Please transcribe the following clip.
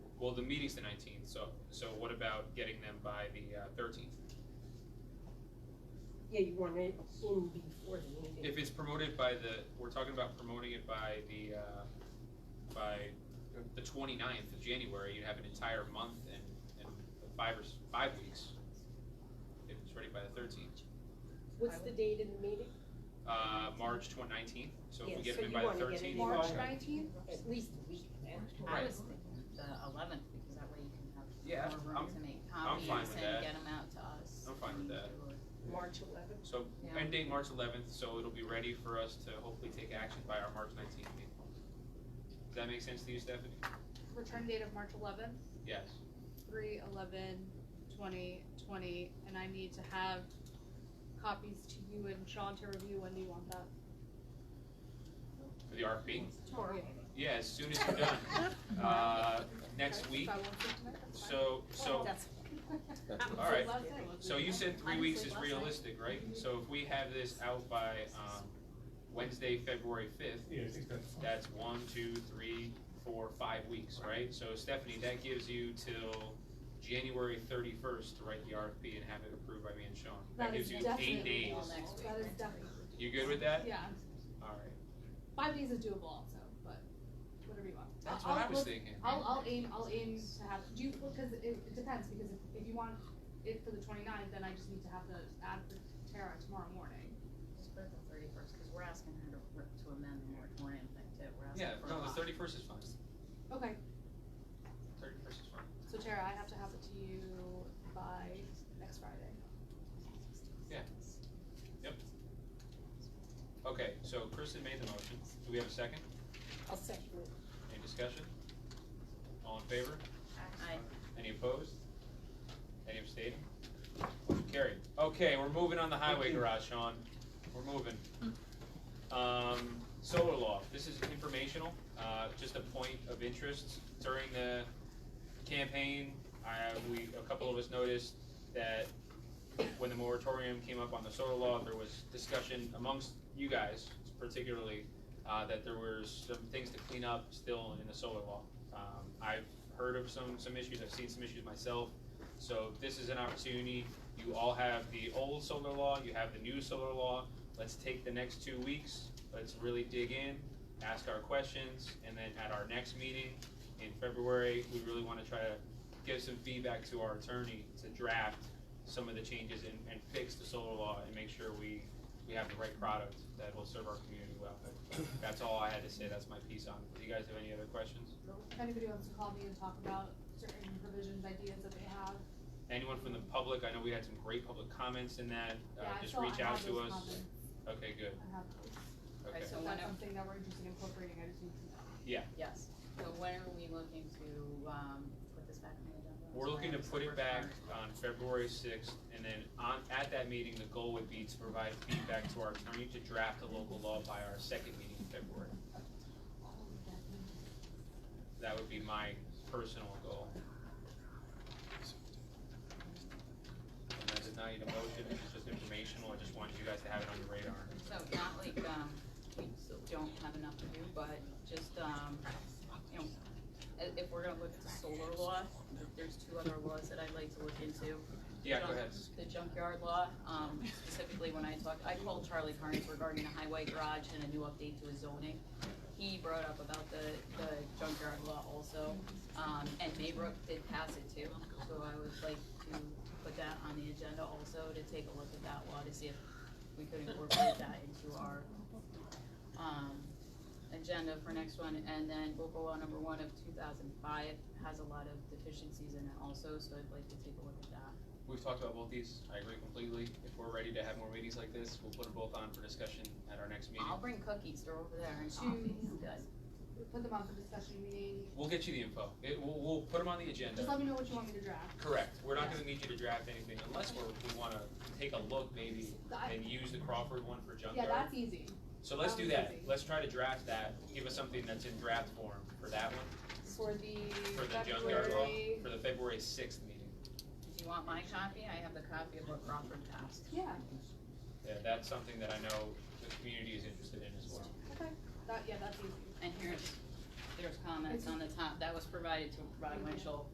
Well, the meeting's the nineteenth, so, so what about getting them by the uh, thirteenth? Yeah, you want it in before the meeting. If it's promoted by the, we're talking about promoting it by the, uh, by the 29th of January, you'd have an entire month and, and five or, s- five weeks. If it's ready by the thirteenth, What's the date of the meeting? uh, March twen- nineteenth, so if Yeah, we get so them in you by the wanna get it thirteenth. in March. nineteenth? At least a week then. I Right. was thinking the eleventh, because that way you can Yeah, have more I'm- room to make I'm copies fine with that. and get them out to us. I'm fine with that. March eleventh. So Yeah. end date March eleventh, so it'll be ready for us to hopefully take action by our March nineteenth meeting. Does that make sense to you, Stephanie? Return date of March eleventh, Yes. three eleven, twenty twenty, and I need to have copies to you and Sean to review when do you want that? For the RFP? Tomorrow. Yeah, as soon as you're done. Uh, next Okay, week, If I want to tonight, that's fine. so, so, That's- all right. Last day. So you said three weeks is Honestly, last night- realistic, right? So if we have this out by, um, Wednesday, February fifth, Yeah, I think that's fine. that's one, two, three, four, five weeks, right? So Stephanie, that gives you till January thirty-first to write the RFP and have it approved by me and Sean. That That gives is you eight definitely days. all next week. That is right? definitely, You good with that? yeah, All right. five days is doable also, but whatever you want. That's I'll- what I I'll was look- thinking. I'll, I'll aim, I'll aim to have, do you, because it, it depends, because if, if you want it for the 29th, then I just need to have the ad for Tara tomorrow morning. Just put the thirty-first, because we're asking her to, re- to amend the moratorium thing too, we're asking Yeah, for a no, the lot. thirty-first is fine. Okay, Thirty-first is fine. so Tara, I have to have it to you by next Friday. Okay, so Kristen made the motion. Do we have a second? I'll second it. Any discussion? All in favor? I, Any opposed? Any abstaining? Motion carried. Okay, we're moving on the highway garage, Sean. We're moving. Um, solar law, this is informational, uh, just a point of interest. During the campaign, I, we, a couple of us noticed that when the moratorium came up on the solar law, there was discussion amongst you guys particularly, uh, that there were some things to clean up still in the solar law. Um, I've heard of some, some issues, I've seen some issues myself, so this is an opportunity. You all have the old solar law, you have the new solar law. Let's take the next two weeks, let's really dig in, ask our questions, and then at our next meeting in February, we really wanna try to give some feedback to our attorney to draft some of the changes and, and fix the solar law and make sure we, we have the right product that will serve our community well. That's all I had to say, that's my piece on it. Do you guys have any other questions? If anybody wants to call me and talk about certain provisions, ideas that they have, Anyone from the public, I know we had some great public comments in that, uh, yeah, I just still, I reach out have to those us. comments, Okay, good, I have those. okay. so If when, that's are- something that we're interested in incorporating, I just need to know. yes, so when are we looking to, um, put this back on the agenda? We're looking to put Sorry, it we're back sorry. on February sixth, and then on, at that meeting, the goal would be to provide feedback to our attorney to draft a local law by our second meeting in February. That would be my personal goal. And that is not an emotion, it's just informational, I just wanted you guys to have it on your radar. So not like, um, we don't have enough to do, but just, um, you know, i- if we're gonna look at the solar law, there's two other laws that I'd like to look into. Yeah, go ahead. The junkyard law, um, specifically when I talked, I called Charlie Carnes regarding the highway garage and a new update to his zoning. He brought up about the, the junkyard law also, um, and Maybrook did pass it too, so I would like to put that on the agenda also, to take a look at that law, to see if we could incorporate that into our, um, agenda for next one, and then local law number one of two thousand five has a lot of deficiencies in it also, so I'd like to take a look at that. We've talked about both these, I agree completely. If we're ready to have more meetings like this, we'll put them both on for discussion at our next meeting. I'll bring cookies, they're over there, and Shoes. coffee, good. We Put them on for discussion meeting, We'll get you the info. It, we'll, we'll put them on the agenda. just let me know what you want me to draft. Correct, we're not gonna need you to draft anything unless we're, we wanna take a look maybe I- and use the Crawford one for Yeah, junkyard. that's easy. So let's that do was that, easy. let's try to draft that, give us something that's in draft form for that one, For the for the junkyard law, February, for the February sixth meeting. If you want my copy, I have the copy of what Crawford passed. yeah, Yeah, that's something that I know the community is interested in as well. that, yeah, that's easy. And here's, there's comments on the top, that was provided to Rod Winchell